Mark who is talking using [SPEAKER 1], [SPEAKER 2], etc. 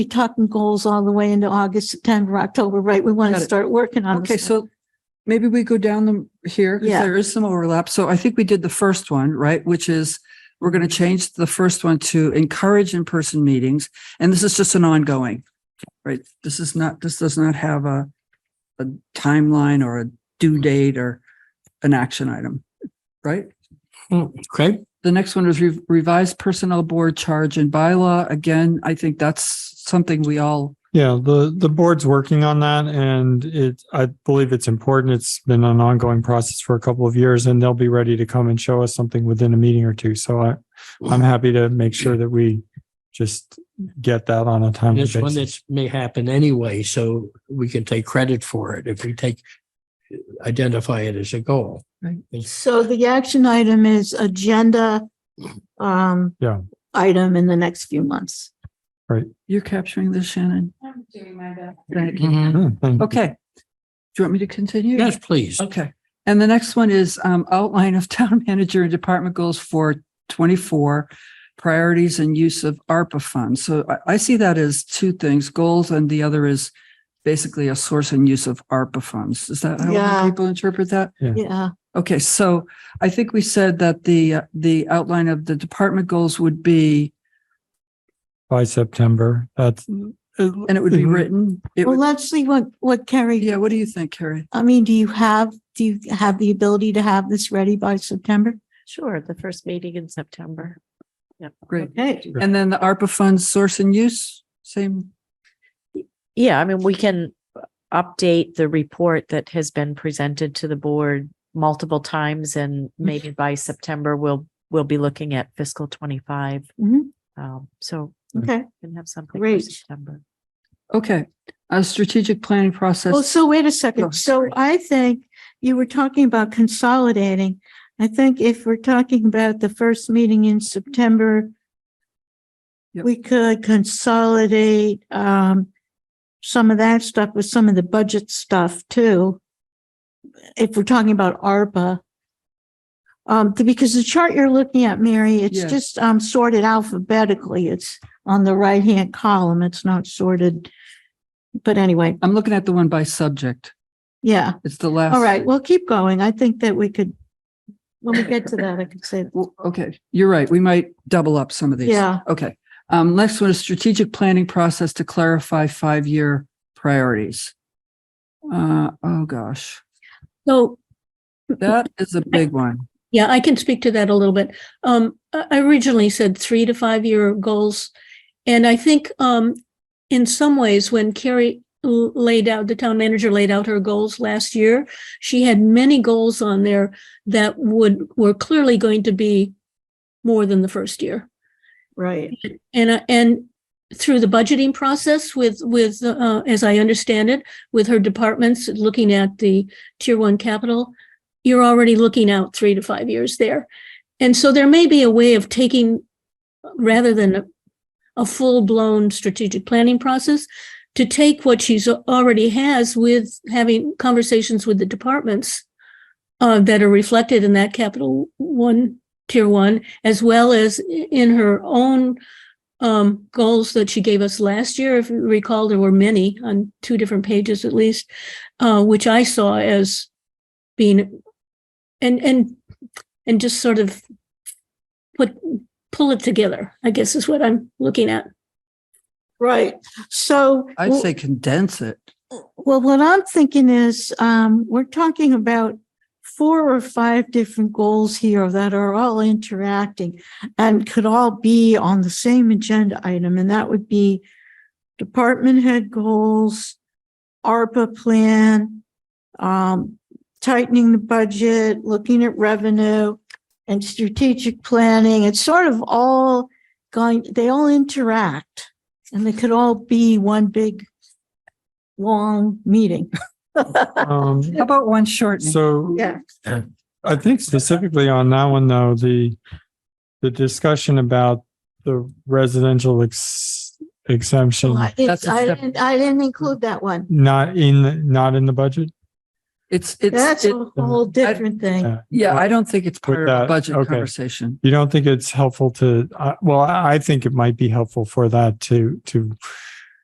[SPEAKER 1] be talking goals all the way into August, September, October, right? We want
[SPEAKER 2] Got
[SPEAKER 1] to
[SPEAKER 2] it.
[SPEAKER 1] start working on this.
[SPEAKER 2] Okay, so maybe we go down them here, because
[SPEAKER 1] Yeah.
[SPEAKER 2] there is some overlap. So I think we did the first one, right, which is we're going to change the first one to encourage in-person meetings, and this is just an ongoing, right? This is not, this does not have a, a timeline or a due date or an action item, right?
[SPEAKER 3] Oh,
[SPEAKER 4] Okay,
[SPEAKER 2] The next one is re- revised personnel board charge and bylaw. Again, I think that's something we all,
[SPEAKER 4] yeah, the, the board's working on that and it, I believe it's important. It's been an ongoing process for a couple of years and they'll be ready to come and show us something within a meeting or two. So I, I'm happy to make sure that we just get that on a
[SPEAKER 3] And
[SPEAKER 4] timely
[SPEAKER 3] It's one
[SPEAKER 4] basis.
[SPEAKER 3] that may happen anyway, so we can take credit for it if we take, identify it as a goal.
[SPEAKER 1] So the action item is agenda um
[SPEAKER 4] Yeah.
[SPEAKER 1] item in the next few months.
[SPEAKER 2] you're capturing this, Shannon?
[SPEAKER 5] I'm doing my best.
[SPEAKER 2] Thank you.
[SPEAKER 4] Mm, thank you.
[SPEAKER 2] Okay. Do you want me to continue?
[SPEAKER 3] Mm-hmm. Yes, please.
[SPEAKER 2] Okay. And the next one is um, outline of town manager and department goals for 24 priorities and use of ARPA funds. So I, I see that as two things, goals, and the other is basically a source and use of ARPA funds. Is that how
[SPEAKER 1] Yeah.
[SPEAKER 2] other people interpret that?
[SPEAKER 1] Yeah,
[SPEAKER 2] Okay, so I think we said that the, uh, the outline of the department goals would be,
[SPEAKER 4] By September, that's.
[SPEAKER 2] and it would be written. It
[SPEAKER 1] well,
[SPEAKER 2] would,
[SPEAKER 1] let's see what what Carrie,
[SPEAKER 2] yeah, what do you think, Carrie?
[SPEAKER 1] I mean, do you have, do you have the ability to have this ready by September?
[SPEAKER 6] Sure, the first meeting in September. Yep.
[SPEAKER 2] Great.
[SPEAKER 1] Okay.
[SPEAKER 2] And then the ARPA funds source and use, same,
[SPEAKER 6] Yeah, I mean, we can update the report that has been presented to the board multiple times and
[SPEAKER 1] Mm-hmm.
[SPEAKER 6] maybe by September, we'll, we'll be looking at fiscal twenty-five.
[SPEAKER 1] Mhm.
[SPEAKER 6] Um, so
[SPEAKER 1] Okay.
[SPEAKER 6] we can have something for
[SPEAKER 1] Great.
[SPEAKER 6] September.
[SPEAKER 2] okay. A strategic planning process.
[SPEAKER 1] Well, so wait a
[SPEAKER 2] Oh,
[SPEAKER 1] second. So
[SPEAKER 2] sorry.
[SPEAKER 1] I think you were talking about consolidating. I think if we're talking about the first meeting in September,
[SPEAKER 2] Yep.
[SPEAKER 1] we could consolidate um some of that stuff with some of the budget stuff too. If we're talking about ARPA. Um, th- because the chart you're looking at, Mary, it's
[SPEAKER 2] Yes.
[SPEAKER 1] just um sorted alphabetically. It's on the right-hand column. It's not sorted. But anyway,
[SPEAKER 2] I'm looking at the one by subject.
[SPEAKER 1] yeah.
[SPEAKER 2] It's the last.
[SPEAKER 1] All right, well, keep going. I think that we could, when we get to that, I could say,
[SPEAKER 2] Well, okay, you're right. We might double up some of these.
[SPEAKER 1] yeah,
[SPEAKER 2] Okay. Um, next one is strategic planning process to clarify five-year priorities. Uh, oh, gosh,
[SPEAKER 7] So,
[SPEAKER 2] that is a big one.
[SPEAKER 7] yeah, I can speak to that a little bit. Um, I I originally said three to five year goals. And I think, um, in some ways, when Carrie l- laid out, the town manager laid out her goals last year, she had many goals on there that would, were clearly going to be more than the first year.
[SPEAKER 1] right.
[SPEAKER 7] And, uh, and through the budgeting process with, with, uh, as I understand it, with her departments, looking at the tier one capital, you're already looking out three to five years there. And so there may be a way of taking, rather than a- a full-blown strategic planning process, to take what she's already has with having conversations with the departments uh, that are reflected in that capital one, tier one, as well as i- in her own um, goals that she gave us last year. If you recall, there were many on two different pages at least, uh, which I saw as being and and and just sort of put pull it together. I guess is what I'm looking at.
[SPEAKER 1] Right, so.
[SPEAKER 2] I'd say condense it.
[SPEAKER 1] Well, what I'm thinking is, um, we're talking about four or five different goals here that are all interacting and could all be on the same agenda item, and that would be department head goals, ARPA plan, um, tightening the budget, looking at revenue, and strategic planning. It's sort of all going, they all interact, and they could all be one big long meeting.
[SPEAKER 4] Um,
[SPEAKER 2] How about one shortening?
[SPEAKER 4] so.
[SPEAKER 1] Yeah.
[SPEAKER 4] I think specifically on that one though, the, the discussion about the residential ex- exemption,
[SPEAKER 1] I
[SPEAKER 2] That's a step.
[SPEAKER 1] didn't, I didn't include that one.
[SPEAKER 4] not in, the- not in the budget?
[SPEAKER 2] It's, it's,
[SPEAKER 1] That's
[SPEAKER 2] it-
[SPEAKER 1] a whole different thing.
[SPEAKER 4] Yeah.
[SPEAKER 2] yeah, I don't think it's part of the
[SPEAKER 4] that,
[SPEAKER 2] budget
[SPEAKER 4] okay.
[SPEAKER 2] conversation.
[SPEAKER 4] You don't think it's helpful to, uh, well, I I think it might be helpful for that to, to